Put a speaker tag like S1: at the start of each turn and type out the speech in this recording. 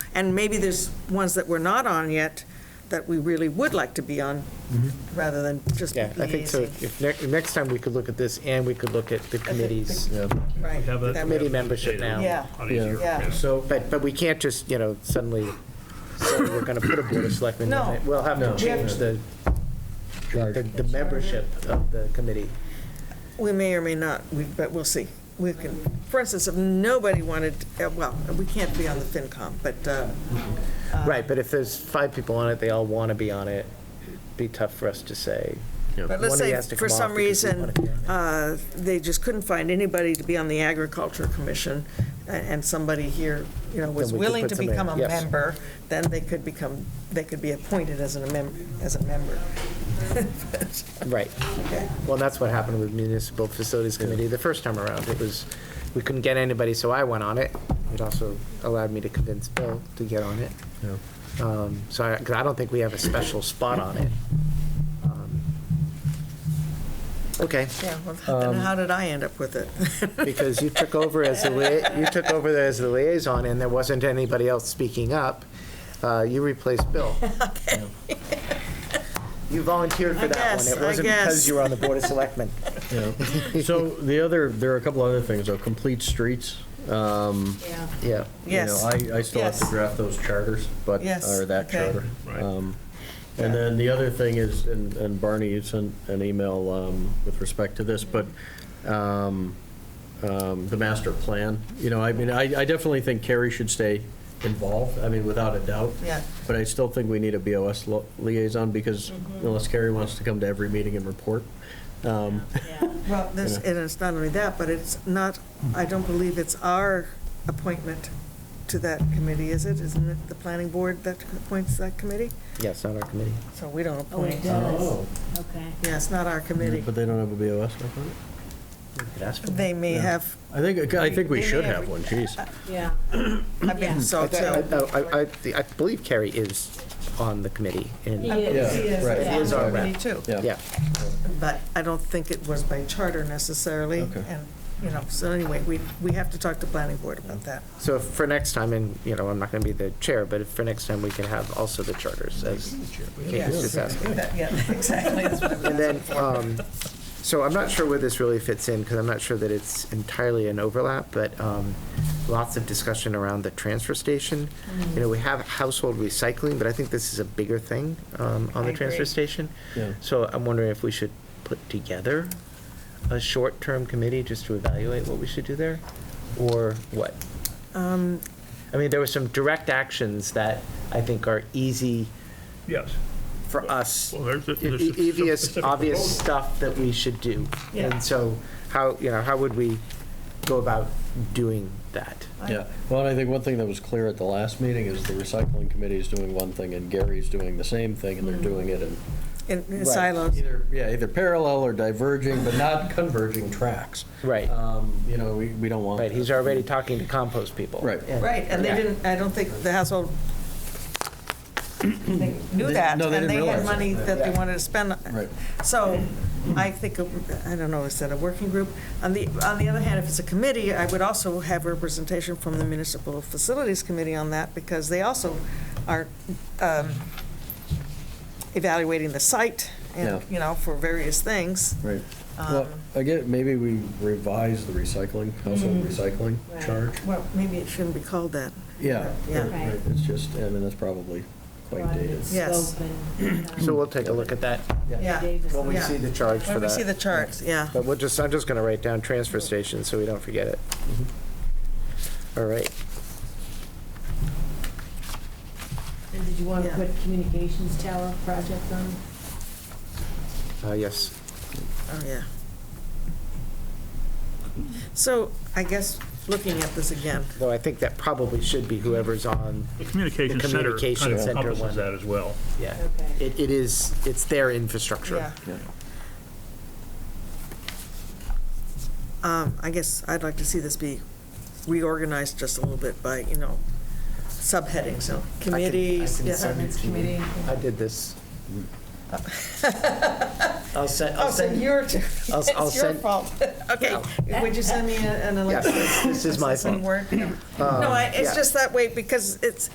S1: And maybe there's ones that we're not on yet that we really would like to be on, rather than just
S2: Mm-hmm. Yeah, I think so.
S1: liaising.
S2: If, ne- next time we could look at this and we could look at the committees.
S1: Right.
S3: Have a-
S1: That
S2: Committee
S1: may-
S2: membership now.
S1: Yeah,
S3: On each year.
S1: yeah.
S2: So, but, but we can't just, you know, suddenly say we're going to put a board of selectmen. on it.
S1: No.
S2: We'll have to
S4: No.
S2: change the, the, the membership of the committee.
S1: We may or may not, we- but we'll see. We can, for instance, if nobody wanted, uh, well, we can't be on the FinCom, but, uh,
S2: Right, but if there's five people on it, they all want to be on it, it'd be tough for us to say.
S1: but
S2: One
S1: let's
S2: of you
S1: say,
S2: has to
S1: for
S2: come off
S1: some
S2: because we wanna
S1: reason,
S2: be on it.
S1: uh, they just couldn't find anybody to be on the Agriculture Commission, a- and somebody here, you know, was
S2: Then we could
S1: willing
S2: put
S1: to
S2: somebody-
S1: become a
S2: yes.
S1: member, then they could become, they could be appointed as an amem- as a member. uh,
S2: Right.
S1: Okay.
S2: Well, that's what happened with Municipal Facilities Committee the first time around. It was, we couldn't get anybody, so I went on it. It also allowed me to convince Bill to get on it. Um, So I, 'cause I don't think we have a special spot on it. Um, Okay,
S1: Yeah, well,
S4: Um,
S1: then how did I end up with it?
S2: because you took over as the, lia- you took over as the liaison, and there wasn't anybody else speaking up. Uh, You replaced Bill. You volunteered for
S1: I
S2: that one.
S1: guess,
S2: It
S1: I
S2: wasn't because
S1: guess.
S2: you were on the Board of Selectmen.
S4: So the other, there are a couple other things, though, complete streets. um,
S5: Yeah.
S2: Yeah.
S4: you know,
S1: Yes.
S4: I, I still have to
S1: Yes.
S4: draft those charters, but,
S1: Yes,
S4: or that
S1: okay.
S4: charter.
S3: Right.
S4: Um, And
S1: Yeah.
S4: then the other thing is, and and Barney, you sent an email um, with respect to this, but um, um, the master plan, you know, I mean, I, I definitely think Carrie should stay involved, I mean, without a doubt.
S1: Yeah.
S4: But I still think we need a BOS lo- liaison, because
S1: Mm-hmm.
S4: unless Carrie wants to come to every meeting and report. um,
S1: Well, this,
S4: Yeah.
S1: and it's not only that, but it's not, I don't believe it's our appointment to that committee, is it? Isn't it the planning board that appoints that committee?
S2: Yes, on our committee.
S1: So we don't
S5: Oh, it
S1: appoint.
S4: um,
S5: does. Okay.
S1: Yeah, it's not our committee.
S4: But they don't have a BOS like that?
S2: Could ask for
S1: They may have,
S4: I think, I think we
S1: They Uh, may
S4: should
S1: have-
S4: have one, geez.
S5: Yeah.
S1: I've
S5: Yeah.
S1: been so
S2: I- uh,
S1: too.
S2: I, I- I believe Carrie is on the committee,
S5: He
S2: and,
S5: is.
S4: Yeah, right.
S5: yeah.
S4: He is our rep.
S1: Me too.
S2: yeah.
S1: But I don't think it was by charter necessarily.
S4: Okay.
S1: And, you know, so anyway, we, we have to talk to planning board about that.
S2: So if for next time, and, you know, I'm not gonna be the chair, but if for next time, we can have also the charters as Kate was just asking.
S1: Yeah, exactly. That's what I'm
S2: And then,
S1: asking for.
S2: um, so I'm not sure where this really fits in, because I'm not sure that it's entirely an overlap, but, um, lots of discussion around the transfer station.
S1: Mm.
S2: You know, we have household recycling, but I think this is a bigger thing, um, on the
S1: I
S2: transfer
S1: agree.
S2: station.
S4: Yeah.
S2: So I'm wondering if we should put together a short-term committee just to evaluate what we should do there, or what?
S1: Um,
S2: I mean, there were some direct actions that I think are easy
S3: Yes.
S2: for us,
S3: Well, there's a-
S2: e-
S3: there's a
S2: e- obvious,
S3: specific
S2: obvious
S3: proposal.
S2: stuff that we should do.
S1: Yeah.
S2: And so, how, you know, how would we go about doing that?
S4: Yeah, well, and I think one thing that was clear at the last meeting is the recycling committee is doing one thing and Gary's doing the same thing and they're
S1: Mm-hmm.
S4: doing it in.
S1: In- In silos.
S4: Either, yeah, either parallel or diverging, but not converging tracks.
S2: Right.
S4: Um, You know, we, we don't want.
S2: Right, he's already talking to compost people.
S4: Right.
S2: And-
S1: Right, and they
S2: Yeah.
S1: didn't, I don't think the household they knew
S4: They-
S1: that.
S4: no, they didn't
S1: And they had
S4: realize it.
S1: money that they wanted to spend.
S4: Right.
S1: So I think, of- I don't know, is that a working group? On the, on the other hand, if it's a committee, I would also have representation from the Municipal Facilities Committee on that because they also are um, evaluating the site and,
S4: Yeah.
S1: you know, for various things.
S4: Right. Well,
S1: Um,
S4: again, maybe we revise the recycling,
S1: Mm-hmm.
S4: household recycling
S5: Right.
S4: charge.
S1: Well, maybe it shouldn't be called that.
S4: Yeah.
S1: Yeah.
S4: right, right. It's just, I mean, that's probably quite
S5: Broaden
S4: dated.
S5: its
S1: Yes.
S5: scope and, um,
S2: So we'll take a look at that
S1: Yeah.
S5: Davis-
S2: when we
S1: Yeah.
S2: see the charge for
S1: When we see the
S2: that.
S1: charts, yeah.
S2: But we'll just, I'm just gonna write down transfer station, so we don't forget it. All right,
S5: And did you want to
S1: Yeah.
S5: put communications tower project on?
S2: uh, yes.
S1: Oh, yeah. So I guess, looking at this again,
S2: Though I think that probably should be whoever's on,
S3: The communication
S2: The
S3: center
S2: communication
S3: kind of
S2: center one.
S3: encompasses that as well.
S2: yeah.
S5: Okay.
S2: It, it is, it's their infrastructure.
S1: yeah, um, I guess I'd like to see this be reorganized just a little bit by, you know, subheadings, so committees.
S2: I can
S1: yeah.
S2: send it to you.
S5: Committee.
S2: I did this. I'll send,
S1: Oh,
S2: I'll
S1: so
S2: send,
S1: you're,
S2: I'll-
S1: it's
S2: I'll
S1: your
S2: send-
S1: fault. Okay, would you send me a- an
S2: yes,
S1: election?
S2: this is my fault.
S1: No, I- it's
S2: uh, yeah.
S1: just that way because it's,